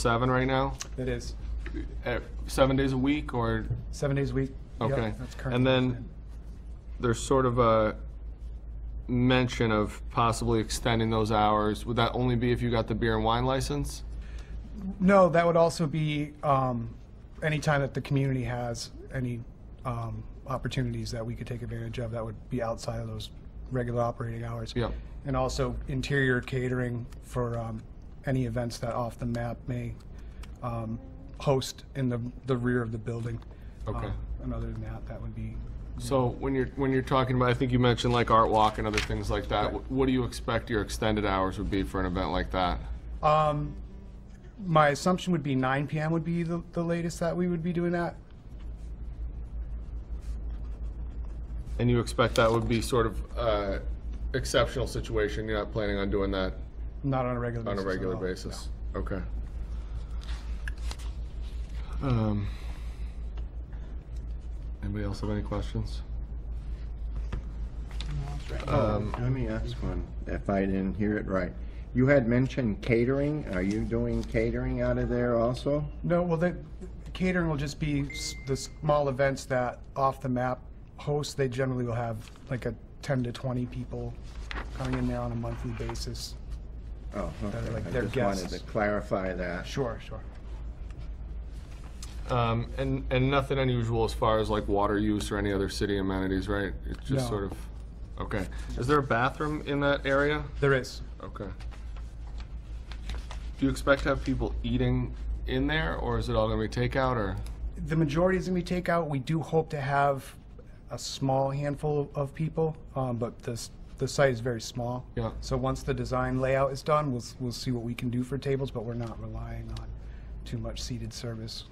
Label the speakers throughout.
Speaker 1: seven right now,
Speaker 2: It is.
Speaker 1: Eh, seven days a week or,
Speaker 2: Seven days a week. Yep,
Speaker 1: okay.
Speaker 2: that's current.
Speaker 1: And then there's sort of a mention of possibly extending those hours. Would that only be if you got the beer and wine license?
Speaker 2: No, that would also be um, any time that the community has any um, opportunities that we could take advantage of that would be outside of those regular operating hours.
Speaker 1: Yeah.
Speaker 2: And also interior catering for um, any events that Off the Map may um, host in the, the rear of the building.
Speaker 1: Okay.
Speaker 2: Um, And other than that, that would be,
Speaker 1: So when you're, when you're talking about, I think you mentioned like Art Walk and other things like that, wh- what do you expect your extended hours would be for an event like that?
Speaker 2: um, my assumption would be 9 PM would be the, the latest that we would be doing that.
Speaker 1: And you expect that would be sort of uh, exceptional situation, you're not planning on doing that
Speaker 2: Not on a regular
Speaker 1: On
Speaker 2: basis.
Speaker 1: a
Speaker 2: at
Speaker 1: regular
Speaker 2: all.
Speaker 1: basis, okay. Um, Anybody else have any questions?
Speaker 3: Um, Let me ask one, if I didn't hear it right. You had mentioned catering. Are you doing catering out of there also?
Speaker 2: No, well, the the catering will just be s- the small events that off the map hosts. They generally will have like a 10 to 20 people coming in there on a monthly basis.
Speaker 3: Oh, okay.
Speaker 2: like
Speaker 3: I
Speaker 2: their
Speaker 3: just wanted to
Speaker 2: guests.
Speaker 3: clarify that.
Speaker 2: Sure, sure.
Speaker 1: Um, And, and nothing unusual as far as like water use or any other city amenities, right? It's just
Speaker 2: No.
Speaker 1: sort of, okay. Is there a bathroom in that area?
Speaker 2: There is.
Speaker 1: Okay. Do you expect to have people eating in there, or is it all gonna be takeout, or?
Speaker 2: The majority is going to be takeout. We do hope to have a small handful of people, um, but this, the site is very small.
Speaker 1: Yeah.
Speaker 2: So once the design layout is done, we'll, s- we'll see what we can do for tables, but we're not relying on too much seated service.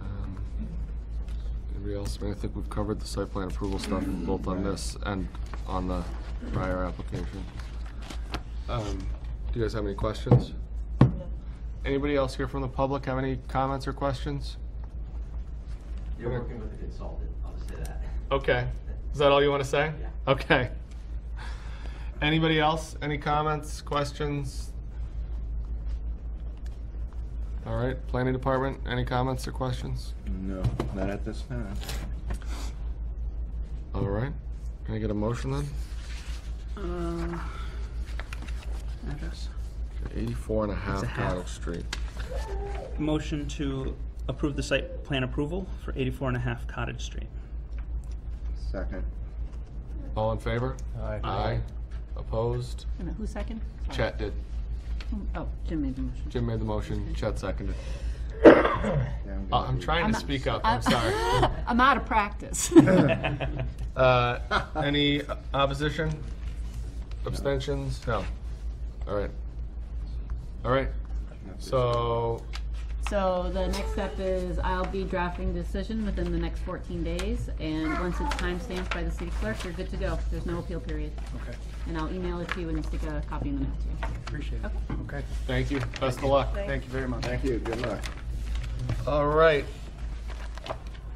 Speaker 1: Um, Anybody else? I mean, I think we've covered the site plan approval stuff both on this and on the prior application. Um, Do you guys have any questions? Anybody else here from the public have any comments or questions?
Speaker 4: You're working with a consultant, I'll say that.
Speaker 1: Okay. Is that all you want to say?
Speaker 4: Yeah.
Speaker 1: Okay. Anybody else? Any comments, questions? All right, planning department, any comments or questions?
Speaker 3: No, not at this time.
Speaker 1: All right. Can I get a motion then?
Speaker 5: Address.
Speaker 1: 84 and a half
Speaker 5: a half.
Speaker 1: Cottle Street.
Speaker 5: Motion to approve the site plan approval for 84 and a half Cottage Street.
Speaker 3: Second.
Speaker 1: All in favor?
Speaker 2: Aye.
Speaker 1: Aye. Opposed?
Speaker 6: Wait a minute, Who second? Sorry.
Speaker 1: Chet did.
Speaker 6: Oh, Jim made the motion.
Speaker 1: Jim made the motion, Chet seconded.
Speaker 3: Yeah, I'm
Speaker 1: Uh,
Speaker 3: gonna
Speaker 1: I'm
Speaker 3: be-
Speaker 1: trying to speak up, I'm sorry.
Speaker 6: I'm out of practice.
Speaker 1: Uh, Any opposition? Abstentions? No. All right. All right. So,
Speaker 6: So the next step is I'll be drafting decision within the next 14 days, and once it's timestamped by the city clerk, you're good to go. There's no appeal period.
Speaker 2: Okay,
Speaker 6: And I'll email it to you and stick a copy in the mail to you.
Speaker 2: appreciate it. Okay,
Speaker 1: thank you, best of luck.
Speaker 2: thank you very much.
Speaker 3: Thank you, good luck.
Speaker 1: All right.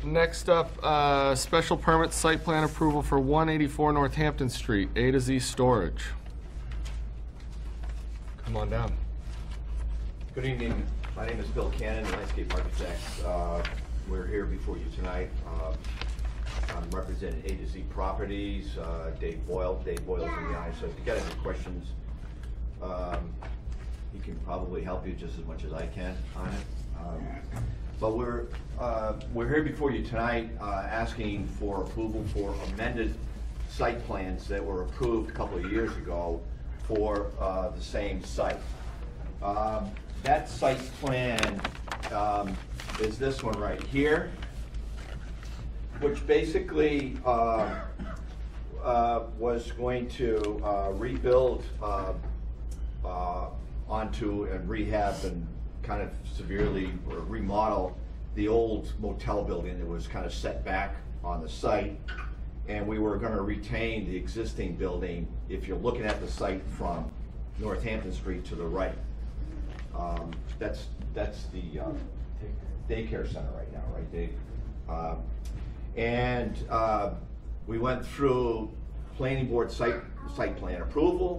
Speaker 1: Next up, uh, special permit site plan approval for 184 Northampton Street, A to Z Storage. Come on down.
Speaker 7: Good evening. My name is Bill Cannon, landscape architect. Uh, We're here before you tonight. Uh, I'm representing A to Z Properties, uh, Dave Boyle. Dave Boyle's in the eye, so if you got any questions, um, he can probably help you just as much as I can on it. Um, But we're, uh, we're here before you tonight uh, asking for approval for amended site plans that were approved a couple of years ago for uh, the same site. Um, That site plan um, is this one right here, which basically uh, uh, was going to uh, rebuild uh, uh, onto and rehab and kind of severely remodel the old motel building that was kind of set back on the site. And we were gonna retain the existing building, if you're looking at the site from Northampton Street to the right. Um, That's, that's the uh, daycare center right now, right, Dave? Um, And uh, we went through planning board site, site plan approval